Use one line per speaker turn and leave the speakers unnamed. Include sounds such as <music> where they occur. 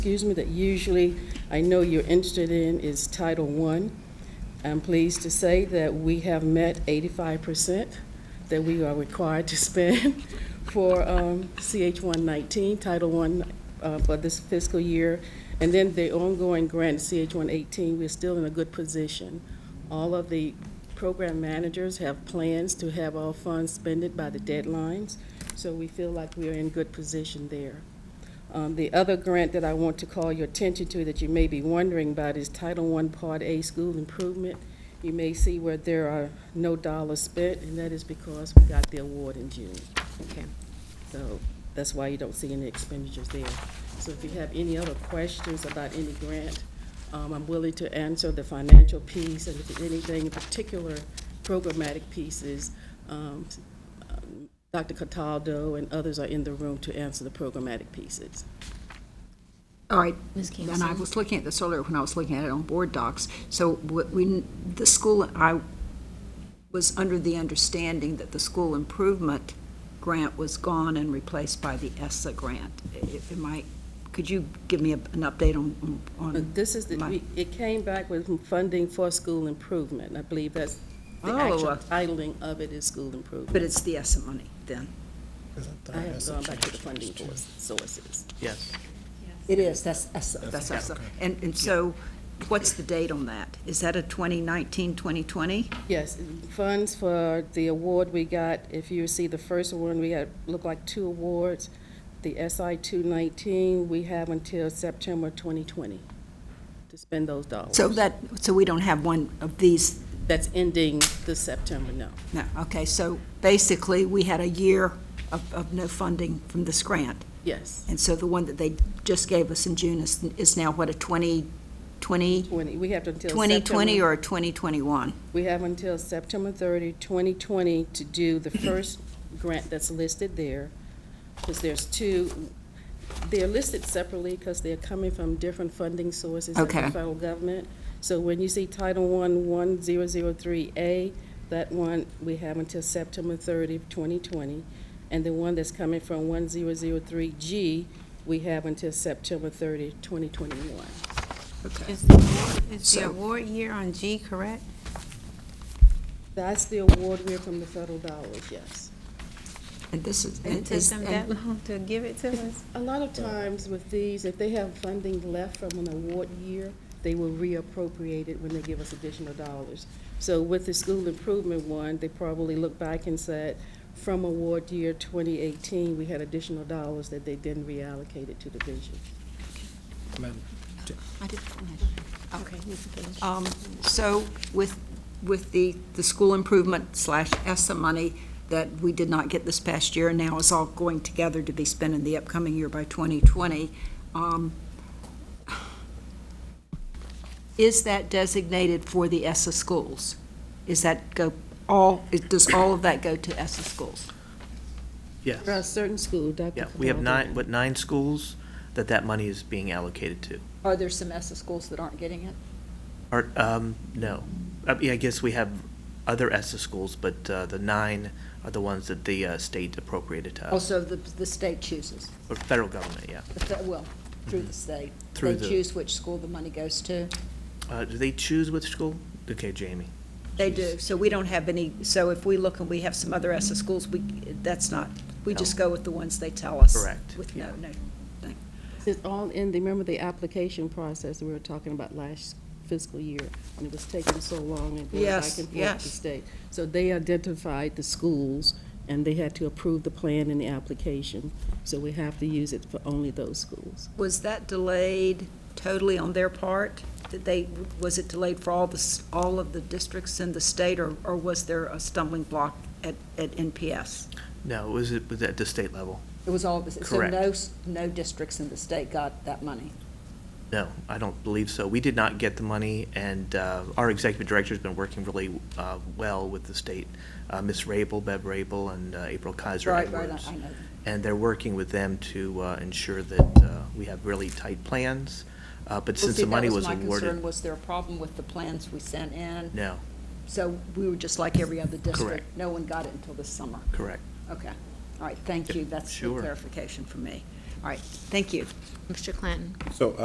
excuse me, that usually I know you're interested in is Title I. I'm pleased to say that we have met 85% that we are required to <laughs> spend for um, CH 119, Title I uh, for this fiscal year. And then the ongoing grant, CH 118, we're still in a good position. All of the program managers have plans to have all funds spent by the deadlines, so we feel like we are in good position there. Um, The other grant that I want to call your attention to that you may be wondering about is Title I Part A School Improvement. You may see where there are no dollars spent, and that is because we got the award in June.
Okay.
So that's why you don't see any expenditures there. So if you have any other questions about any grant, um, I'm willing to answer the financial piece, and if there's anything in particular, programmatic pieces, um, um, Dr. Cataldo and others are in the room to answer the programmatic pieces.
All right,
Ms.
and I
Campson?
was looking at this earlier when I was looking at it on board docs. So wh- when the school, I was under the understanding that the school improvement grant was gone and replaced by the ESSA grant. I- Am I, could you give me a- an update on, on?
But Uh, this is, the
my-
we- it came back with funding for school improvement. I believe that's, the
Oh,
actual
uh,
titling of it is school
But
improvement.
it's the ESSA money then?
I have gone back to the funding source- sources.
Yes.
It is, that's ESSA. That's
okay.
ESSA. And, and so what's the date on that? Is that a 2019, 2020?
Yes, funds for the award we got, if you see the first one, we had, looked like two awards. The SI 219, we have until September 2020 to spend those dollars.
So that, so we don't have one of these
That's ending this September, no.
No, okay, so basically, we had a year of, of no funding from this grant,
Yes,
and so the one that they just gave us in June is, is now what, a 2020,
20, we have until September.
2020 or a 2021?
We have until September 30, 2020 to do the first grant that's listed there, because there's two, they're listed separately because they're coming from different funding sources of the
Okay.
federal government. So when you see Title I, 1003A, that one, we have until September 30, 2020. And the one that's coming from 1003G, we have until September 30, 2021.
Okay.
Is the award, is the
So-
award year on G correct?
That's the award we're from the federal dollars, yes.
And this is,
It
and
took
this,
them
and <laughs>
that long to give it to us?
A lot of times with these, if they have funding left from an award year, they will reappropriate it when they give us additional dollars. So with the school improvement one, they probably looked back and said, from award year 2018, we had additional dollars that they then reallocated to the vision.
Madam,
I did-
Okay, you can finish.
um, so with, with the, the school improvement slash ESSA money that we did not get this past year, and now is all going together to be spent in the upcoming year by 2020, um, is that designated for the ESSA schools? Is that go, all, is- does all of that go to ESSA schools?
For a
yes.
certain school, Dr.
Yeah, we have
Cabaldo.
nine, what, nine schools that that money is being allocated to?
Are there some ESSA schools that aren't getting it?
Or, um, no. I mean, I guess we have other ESSA schools, but uh, the nine are the ones that the uh, state appropriated to us,
Also, the, the state chooses,
or federal government, yeah.
The fe- well, through the state.
Mm-hmm. Through
They
the-
choose which school the money goes to.
Uh, Do they choose which school? Okay, Jamie.
They
She's-
do, so we don't have any, so if we look and we have some other ESSA schools, we, that's not, we just go with the ones they tell us.
Correct,
With no, no, thing.
It's all in, the remember the application process that we were talking about last fiscal year? And it was taking so long and going back
Yes,
and forth to
yes.
state. So they identified the schools, and they had to approve the plan and the application. So we have to use it for only those schools.
Was that delayed totally on their part? Did they, was it delayed for all the, s- all of the districts in the state, or, or was there a stumbling block at, at NPS?
No, it was, it was at the state level.
It was all, so
Correct.
no, s- no districts in the state got that money?
No, I don't believe so. We did not get the money, and uh, our executive director's been working really uh, well with the state, uh, Ms. Rabel, Bev Rabel, and uh, April Kaiser
Right, right,
Edwards.
I- I know.
And they're working with them to uh, ensure that uh, we have really tight plans, uh, but
Well,
since
see,
the
that
money was
My concern,
awarded.
was there a problem with the plans we sent in?
No,
So we were just like every other district?
Correct.
No one got it until this summer?
correct.
Okay, all right, thank you, that's the
Sure.
clarification for me.
All right, thank you.
Mr. Clanton.
So